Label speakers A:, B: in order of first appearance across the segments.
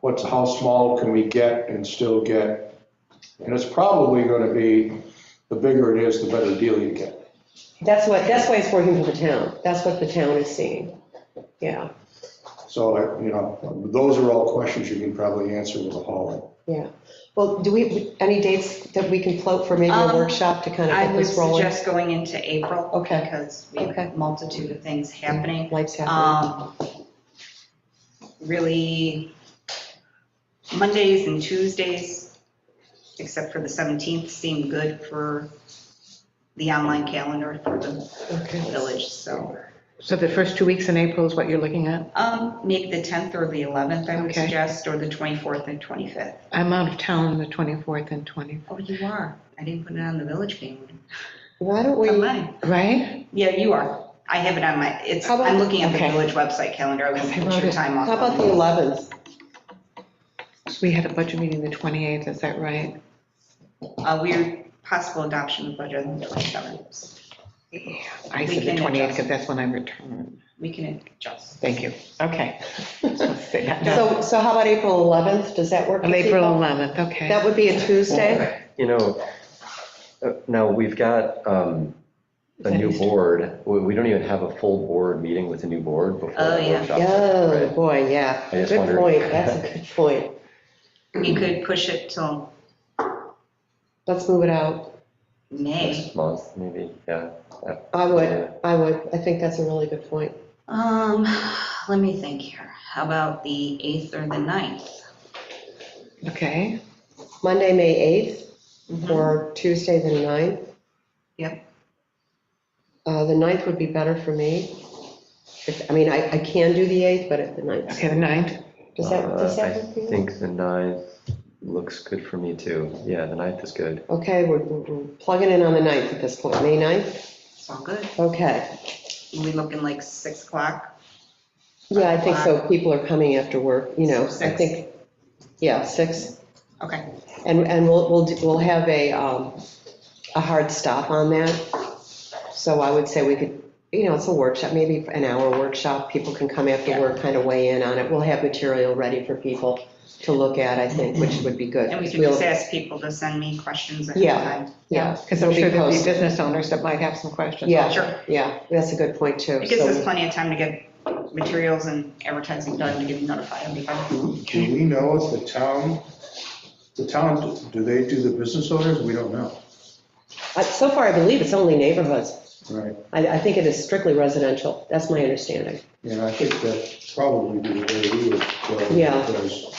A: what's, how small can we get and still get? And it's probably gonna be, the bigger it is, the better deal you get.
B: That's what, that's why it's working for the town. That's what the town is seeing. Yeah,
A: So, I- you know, those are all questions you can probably answer with a hauling.
B: yeah. Well, do we, any dates that we can float for maybe a
C: Um,
B: workshop to kind of
C: I
B: get
C: would
B: this rolling?
C: suggest going into April.
B: Okay.
C: Because we have
B: Okay.
C: a multitude of things happening.
B: Life's happening.
C: Um, Really, Mondays and Tuesdays, except for the 17th, seem good for the online calendar for the
B: Okay.
C: village, so.
D: So the first two weeks in April is what you're looking at?
C: um, Make the 10th or the 11th, I would
D: Okay.
C: suggest, or the 24th and 25th.
D: I'm out of town the 24th and 20th,
C: Oh, you are. I didn't put it on the village calendar.
B: Why don't we,
C: Am I?
D: right?
C: Yeah, you are. I have it on my, it's,
B: How about-
C: I'm looking at the
D: okay.
C: village website calendar. I won't
D: I
C: put
D: wrote
C: your
D: it.
C: time off.
B: how about the 11th?
D: So we had a budget meeting the 28th, is that right?
C: A weird possible adoption of budget on the village governance.
D: I
C: We
D: said the
C: can
D: 28th
C: adjust.
D: because that's when I return.
C: We can adjust.
D: Thank you. Okay. Say that now.
B: So, so how about April 11th? Does that work?
D: Of
B: with
D: Um, April
B: people?
D: 11th, okay.
B: That would be a Tuesday?
E: You know, uh, now, we've got um, a new board. We we don't even have a full board meeting with a new board before
C: Oh,
E: the
C: yeah.
E: workshop.
B: Oh,
E: right?
B: boy, yeah.
E: I just
B: Good
E: wondered.
B: point. That's a good point.
C: You could push it till
B: Let's move it out.
C: May.
E: Next month, maybe, yeah. Uh,
B: I would, I would. I think that's a really good point.
C: Um, let me think here. How about the 8th or the 9th?
D: Okay,
B: Monday, May 8th?
C: Mhm.
B: or Tuesday, the 9th.
C: Yep.
B: Uh, The 9th would be better for me. If- I mean, I I can do the 8th, but at the 9th.
D: okay, the 9th.
B: Does that, does
E: Uh,
B: that work for
E: I
B: you?
E: think the ninth looks good for me, too. Yeah, the ninth is good.
B: Okay, we're we're plugging in on the 9th at this point, May 9th?
C: It's all good.
B: Okay.
C: We looking like 6 o'clock?
B: Yeah, I think so. People are coming after work, you know, I
C: Six.
B: think, yeah, 6.
C: Okay.
B: And, and we'll, we'll, do- we'll have a, um, a hard stop on that. So I would say we could, you know, it's a workshop, maybe an hour workshop, people can come after
C: Yeah.
B: work, kind of weigh in on it. We'll have material ready for people to look at, I think, which would be good.
C: And we can
B: We'll-
C: just ask people to send me questions ahead
B: Yeah.
C: of time.
B: Yeah.
D: Because I'm
B: it'll be
D: sure there'll be
B: posted.
D: business owners that might have some questions.
B: Yeah.
C: Sure.
B: Yeah, that's a good point too.
C: It gives us
B: So
C: plenty of time to get materials and advertising done to get notified. It'll be fine.
A: Do do we know if the town, the town, do they do the business owners? We don't know,
B: uh, so far, I believe it's only neighborhoods.
A: right?
B: I, I think it is strictly residential. That's my understanding.
A: Yeah, I think that's probably the way we would go.
B: Yeah.
A: because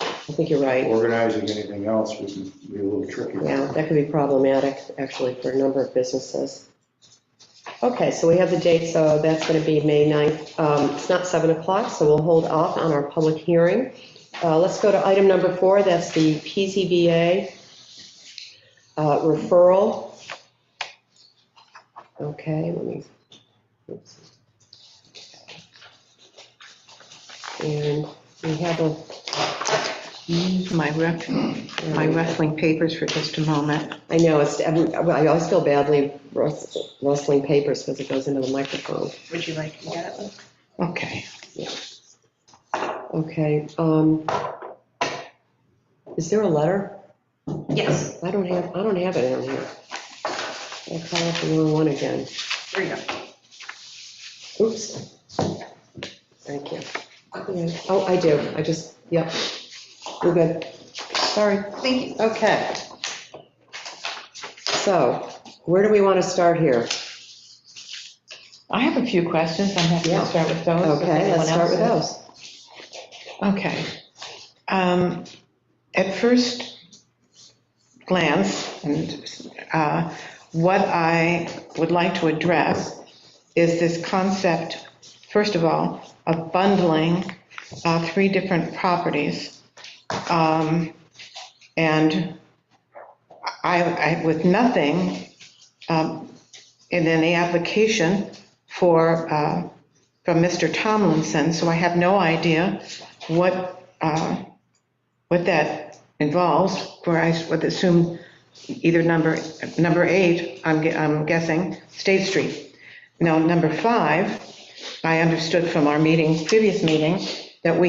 B: I think you're right.
A: Organizing anything else would be a little tricky.
B: Yeah, that could be problematic, actually, for a number of businesses. Okay, so we have the date, so that's going to be May 9th. Um, It's not 7 o'clock, so we'll hold off on our public hearing. Uh, Let's go to item number four, that's the PZBA uh, referral. Okay, let me. oops. And we have a
D: Use My ref, my wrestling papers for just a moment.
B: I know, it's, every- I always feel badly rust- rustling papers because it goes into the microphone.
C: Would you like to get it?
D: Okay.
B: Okay, um, is there a letter?
C: Yes,
B: I don't have, I don't have it on here. I call up the wrong one again.
C: there you go.
B: Oops. Thank you. Yeah, Oh, I do, I just, yep, we're good. Sorry.
C: Thank you.
B: Okay. So, where do we want to start here?
D: I have a few questions. I'm happy
B: Yeah.
D: to start with those. if
B: Okay,
D: anyone
B: let's start
D: else
B: with
D: has.
B: those.
D: Okay. Um, At first glance, and uh, what I would like to address is this concept, first of all, of bundling uh, three different properties. Um, And I, I- with nothing um, in any application for, uh, from Mr. Tomlinson, so I have no idea what, uh, what that involves, where I would assume either number, number eight, I'm gue- I'm guessing, State Street. Now, number five, I understood from our meeting, previous meeting, that we